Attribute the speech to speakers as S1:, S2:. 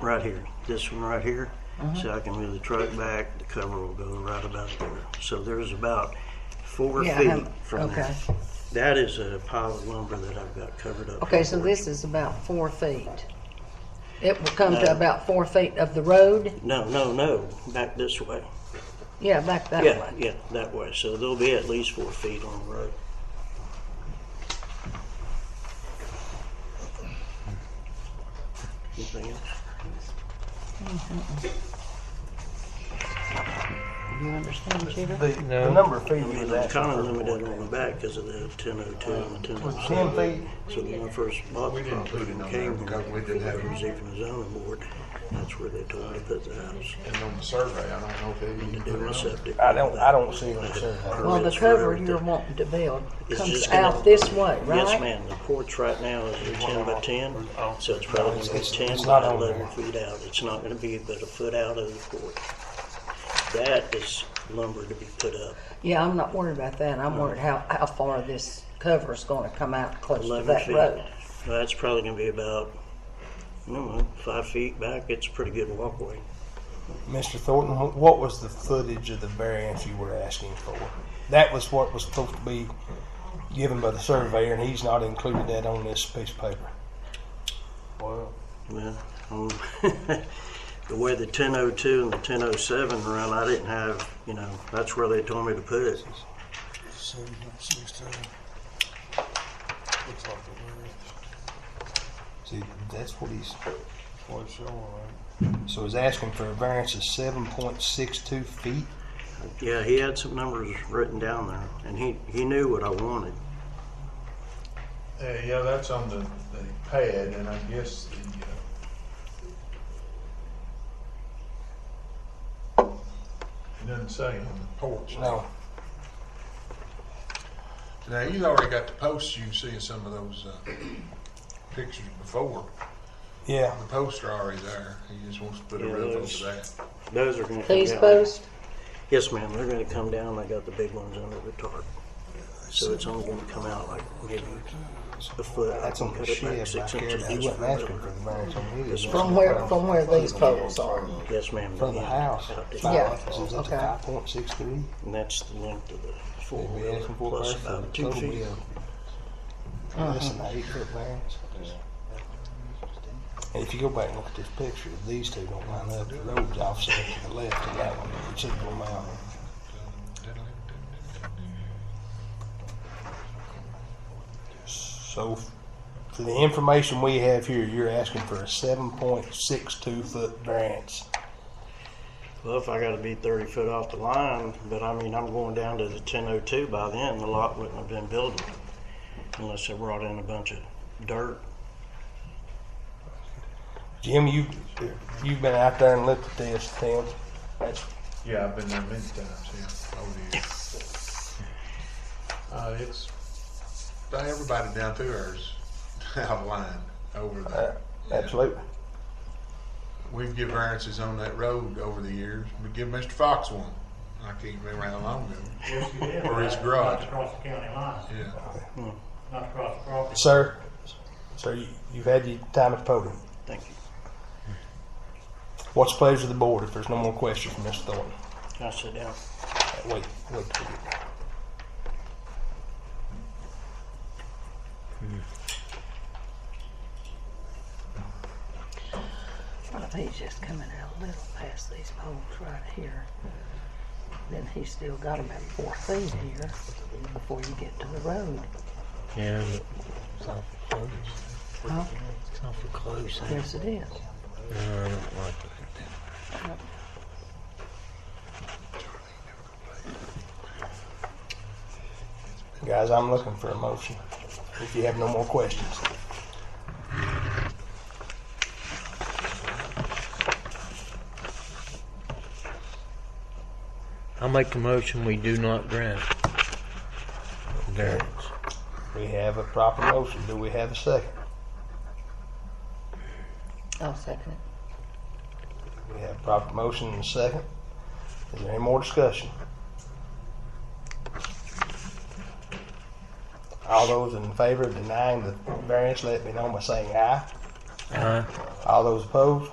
S1: right here, this one right here.
S2: Uh-huh.
S1: So I can move the truck back, the cover will go right about there. So there's about four
S2: Yeah, I
S1: feet
S2: have-
S1: from
S2: okay.
S1: that. That is a pile of lumber that I've got covered up.
S2: Okay,
S1: here
S2: so
S1: for you.
S2: this is about four feet. It will come
S1: No.
S2: to about four feet of the road?
S1: No, no, no, back this way.
S2: Yeah, back that
S1: Yeah,
S2: way.
S1: yeah, that way. So there'll be at least four feet on the road. Anything else?
S2: Do you understand, Jeter?
S3: The,
S4: No.
S3: the number of feet
S1: I
S3: was
S1: mean, I'm
S3: actually
S1: kind of limited on the back because of the ten oh two and the ten
S3: was
S1: oh
S3: ten
S1: seven.
S3: feet.
S1: So when I first bought the property and came here,
S5: because we didn't have
S1: it was even the zoning board, that's where they told me to put the house
S5: And on the survey, I don't know if they
S1: to
S5: even
S1: do
S5: put
S1: my
S5: it up.
S1: septic.
S3: I don't, I don't see what it says.
S2: Well, the
S1: It's
S2: cover
S1: right
S2: you're
S1: there.
S2: wanting to build
S1: It's
S2: comes
S1: just gonna-
S2: out this way, right?
S1: Yes, ma'am, the porch right now is a ten by ten, so it's probably gonna be
S3: It's-
S1: ten
S3: it's
S1: by
S3: not on
S1: eleven
S3: there.
S1: feet out. It's not gonna be but a foot out of the porch. That is lumber to be put up,
S2: Yeah, I'm not worried about that. I'm worried how, how far this cover is gonna come out close to
S1: eleven
S2: that
S1: feet.
S2: road.
S1: Well, That's probably gonna be about, I don't know, five feet back. It's a pretty good walkway.
S3: Mr. Thornton, wh- what was the footage of the variance you were asking for? That was what was supposed to be given by the surveyor, and he's not included that on this piece of paper.
S4: Well,
S1: Well, um, the way the 1002 and the 1007 run, I didn't have, you know, that's where they told me to put it.
S4: looks like the
S3: See, that's what he's,
S4: word, what's showing, right?
S3: so he's asking for a variance of seven point six two feet?
S1: Yeah, he had some numbers written down there, and he, he knew what I wanted.
S5: Uh, yeah, that's on the, the pad, and I guess the, uh, uh, it doesn't say on the porch.
S3: No,
S5: Now, you already got the posts you can see in some of those, uh, pictures before.
S3: yeah,
S5: The posts are already there. He just wants to put a
S1: Yeah,
S5: roof
S1: those-
S5: over that.
S1: Those are gonna come
S2: These
S1: down.
S2: posts,
S1: Yes, ma'am, they're gonna come down. I got the big ones under the tarp. So it's only gonna come out like maybe a foot. I
S3: that's
S1: can
S3: on the
S1: cut it back
S3: shed
S1: six
S3: back there,
S1: inches.
S3: but he
S1: That's
S3: wasn't
S1: where I'm
S3: asking for
S1: going.
S3: the variance on his.
S2: from where, from where these poles are.
S1: Yes, ma'am.
S3: From the
S1: yeah,
S3: house,
S1: out there.
S2: Yeah.
S3: five, is up to
S2: okay.
S3: five point six three?
S1: And that's the length of the four
S3: They'd be
S1: wheeler
S3: asking for
S1: plus
S3: it for
S1: about
S3: the
S1: two
S3: total
S1: feet.
S3: bill. Less than eight foot variance. And if you go back and look at this picture, these two don't line up, the road's offset to the left of that one, a considerable amount. So, f- for the information we have here, you're asking for a seven point six two foot variance.
S1: Well, if I gotta be thirty foot off the line, but I mean, I'm going down to the ten oh two by then, the lot wouldn't have been buildable unless they brought in a bunch of dirt.
S3: Jim, you, you've been out there and looked at this, Tim, that's
S5: Yeah, I've been there many times, yeah, over the years. Uh, it's, everybody down through ours, out of line over
S3: Uh,
S5: there.
S3: Absolutely.
S5: We've given variances on that road over the years. We give Mr. Fox one. I can't remember how long ago.
S6: Yes, you did.
S5: Or his
S6: Not-
S5: garage.
S6: Not across the county line,
S5: Yeah.
S6: not across the property.
S3: Sir, sir, you- you've had your time at the podium.
S1: Thank you.
S3: What's the pleasure of the board if there's no more questions from Mr. Thornton?
S1: Can I sit down?
S3: Uh, Wait, wait. till you-
S2: He's just coming out a little past these poles right here. Then he's still got about four feet here before you get to the road.
S4: Yeah,
S2: Huh?
S4: it's not for close.
S2: Yes, it is.
S4: No, I don't like that.
S3: Guys, I'm looking for a motion. If you have no more questions.
S4: I'll make a motion, we do not grant variance.
S3: We have a proper motion. Do we have a second?
S2: I'll second it.
S3: We have a proper motion and a second. Is there any more discussion? All those in favor of denying the variance, let me know by saying aye.
S4: Aye.
S3: All those opposed?